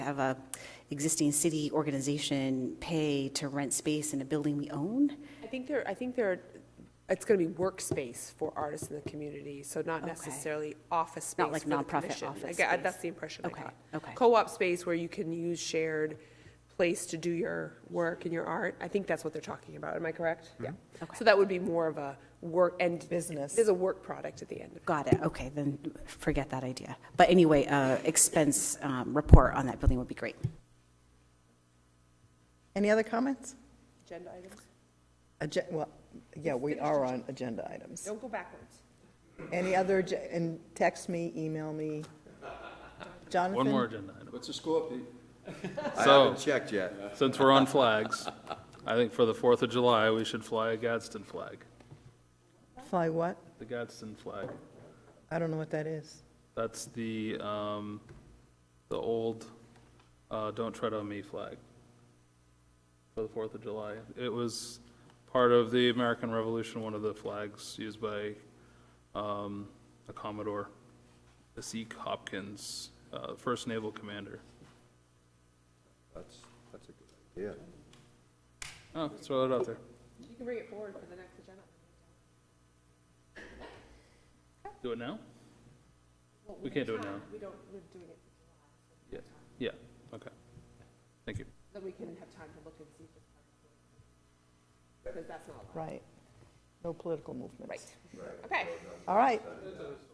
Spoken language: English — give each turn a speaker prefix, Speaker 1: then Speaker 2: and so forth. Speaker 1: have a existing city organization pay to rent space in a building we own?
Speaker 2: I think there, I think there, it's going to be workspace for artists in the community, so not
Speaker 1: Okay.
Speaker 2: necessarily office space.
Speaker 1: Not like
Speaker 2: for the
Speaker 1: nonprofit
Speaker 2: commission.
Speaker 1: office
Speaker 2: I got-
Speaker 1: space.
Speaker 2: That's the impression I
Speaker 1: Okay,
Speaker 2: got.
Speaker 1: okay.
Speaker 2: Co-op space where you can use shared place to do your work and your art. I think that's what they're talking about. Am I correct? Yeah.
Speaker 1: Okay.
Speaker 2: So that would be more of a work, and.
Speaker 3: Business.
Speaker 2: There's a work product at the end. of it.
Speaker 1: Got it, okay, then forget that idea. But anyway, uh, expense um, report on that building would be great.
Speaker 3: Any other comments?
Speaker 2: Agenda items?
Speaker 3: Agen, well, yeah, we are on agenda items.
Speaker 2: Don't go backwards.
Speaker 3: Any other, ag- and text me, email me. Jonathan?
Speaker 4: One more agenda item.
Speaker 5: What's the score, Pete? I
Speaker 4: So,
Speaker 5: haven't checked yet.
Speaker 4: since we're on flags, I think for the Fourth of July, we should fly a Gadsden flag,
Speaker 3: Fly what?
Speaker 4: the Gadsden flag.
Speaker 3: I don't know what that is.
Speaker 4: That's the, um, the old, uh, don't tread on me flag for the Fourth of July. It was part of the American Revolution, one of the flags used by, um, a Commodore, Zeke Hopkins, uh, first naval commander.
Speaker 5: That's, that's a good idea.
Speaker 4: Oh, throw it out there.
Speaker 2: You can bring it forward for the next agenda.
Speaker 4: Do it now? We can't do it now.
Speaker 2: We don't, we're doing it,
Speaker 4: Yeah, yeah, okay. Thank you.
Speaker 2: then we can have time to look and see. Because that's not allowed.
Speaker 3: Right. No political movements.
Speaker 2: Okay.
Speaker 3: All right.